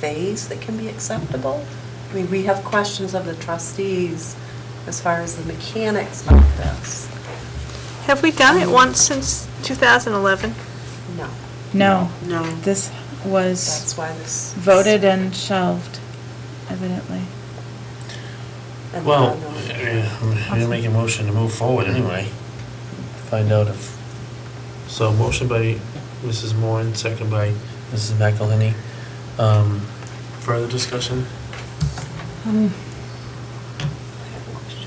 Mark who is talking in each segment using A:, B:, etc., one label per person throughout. A: fees that can be acceptable? I mean, we have questions of the trustees as far as the mechanics of this.
B: Have we done it once since 2011?
A: No,
C: No.
B: No.
C: This was
A: that's why this.
C: voted and shelved, evidently.
A: And
D: Well,
A: no, no.
D: yeah, I'm gonna make a motion to move forward anyway. Find out if, so motion by Mrs. Moore and second by Mrs. McElhenney. Um, Further discussion?
E: Um,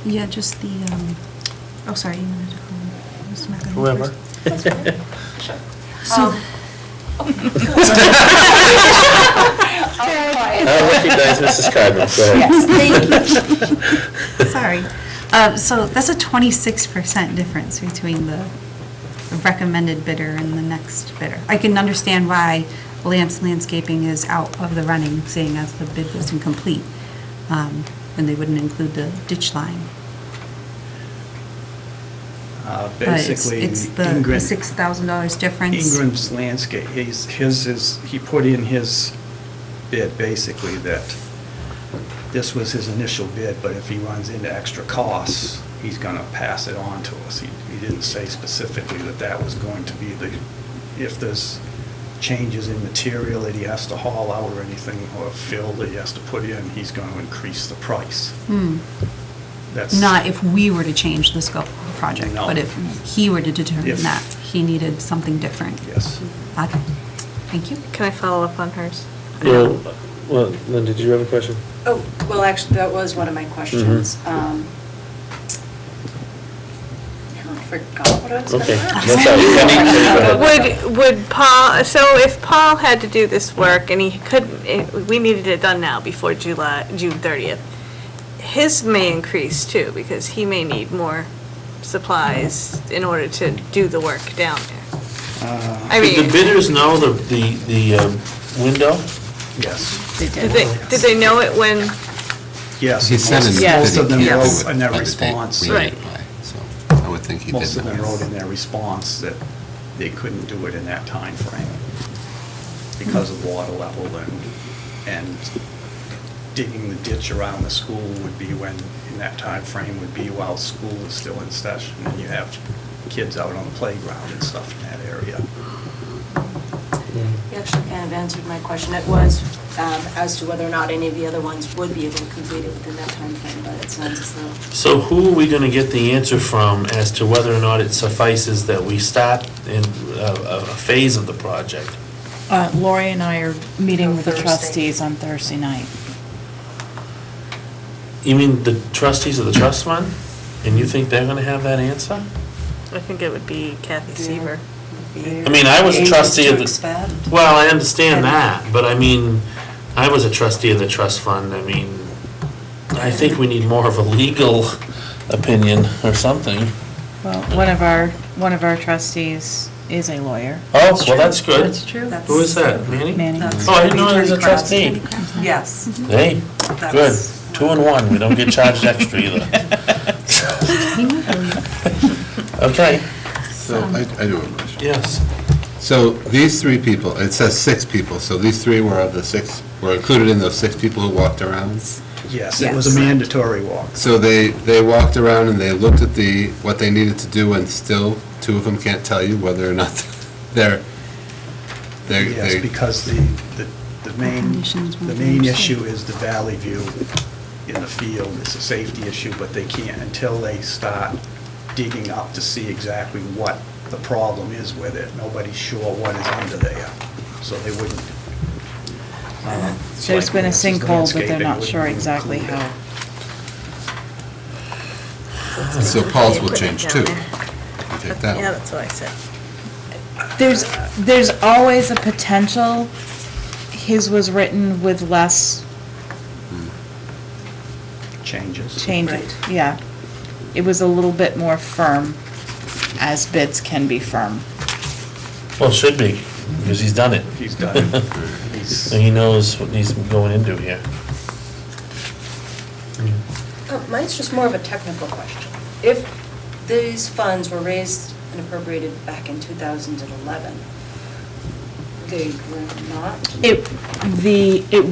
E: Yeah, just the, um, oh, sorry, you wanted to call Ms. McElhenney
D: Whoever.
E: first?
A: Um,
E: So,
F: I recognize Mrs. Cardinal, go ahead.
E: Yes, thank you. Sorry. Uh, So that's a 26% difference between the recommended bidder and the next bidder. I can understand why Lance Landscaping is out of the running, seeing as the bid was incomplete, um, and they wouldn't include the ditch line.
G: Uh,
E: But it's-
G: Basically,
E: It's the the
G: Ingram-
E: $6,000 difference.
G: Ingram's landscape, he's, his is, he put in his bid, basically, that this was his initial bid, but if he runs into extra costs, he's gonna pass it on to us. He, he didn't say specifically that that was going to be the, if there's changes in material that he has to haul out or anything, or fill that he has to put in, he's gonna increase the price.
E: Hmm.
G: That's Uh,
E: Not if we were to change the scope of the project,
G: No.
E: but if he were to determine
G: If-
E: that, he needed something different.
G: Yes.
E: Okay, thank you.
B: Can I follow up on hers?
D: Well, well, Lynn, did you have a question? Mm-hmm.
H: Oh, well, actually, that was one of my questions. Um, Now I forgot what I was going to
D: Okay,
H: ask.
D: that's all right. Penny, go ahead.
B: Would, would Paul, so if Paul had to do this work and he couldn't, eh, we needed it done now before July, June 30th, his may increase too, because he may need more supplies in order to do the work down there.
G: Uh,
B: I
D: Did
B: mean,
D: the bidders know the, the, the um, window?
G: Yes,
B: did they, did they know it when,
G: yes.
I: He said in.
G: Most- Most of them
B: Yes.
G: wrote in their response.
B: Right.
I: So I would think he did.
G: Most of
I: know.
G: them wrote in their response that they couldn't do it in that time frame because of water level and, and digging the ditch around the school would be when, in that time frame would be while school is still in session and you have kids out on the playground and stuff in that area.
D: Mm-hmm.
H: You actually kind of answered my question. It was um, as to whether or not any of the other ones would be able to complete it within that time frame, but it sounds as though.
D: So who are we gonna get the answer from as to whether or not it suffices that we start in a, a a phase of the project?
C: Uh, Lori and I are meeting with the
A: Thursday.
C: trustees on Thursday night.
D: You mean the trustees of the trust fund? And you think they're gonna have that answer?
B: I think it would be Kathy
A: Yeah.
B: Seaver.
D: I mean, I was a
A: Ages
D: trustee
A: to
D: of the-
A: expand.
D: Well, I understand that, but I mean, I was a trustee of the trust fund, I mean, I think we need more of a legal opinion or something.
C: Well, one of our, one of our trustees is a lawyer,
D: Oh, well, that's good.
A: true.
D: Who is that, Manny?
C: Manny.
A: That's-
D: Oh, I didn't know he was a
A: Attorney Kraus.
D: trustee.
A: Yes.
E: Mm-hmm.
D: Hey, good,
A: That's-
D: two and one, we don't get charged extra either. Okay,
I: So I, I do have a question.
D: yes.
I: So these three people, it says six people, so these three were of the six, were included in those six people who walked around?
G: Yes, it was a mandatory walk.
I: So they, they walked around and they looked at the, what they needed to do, and still, two of them can't tell you whether or not they're, they're.
G: Yes,
I: they-
G: because the, the, the main,
E: Conditions
G: the
E: won't
G: main
E: be
G: issue is the valley view in the field. It's a safety issue, but they can't, until they start digging up to see exactly what the problem is with it. Nobody's sure what is under there, so they wouldn't. um,
C: There's been a
G: like, this is
C: sinkhole, but they're
G: landscaping,
C: not sure
G: wouldn't
C: exactly
G: include it.
C: how.
I: So Paul's will change too. You Take that
B: Yeah,
I: one.
B: that's what I said.
C: There's, there's always a potential, his was written with less
G: Changes.
C: changes, yeah. It was a little bit more firm, as bids can be firm.
D: Well, should be, because he's done it.
G: He's done it. He's-
D: So he knows what he's going into here.
H: Uh, Mine's just more of a technical question. If these funds were raised and appropriated back in 2011, they were not
C: It, the, it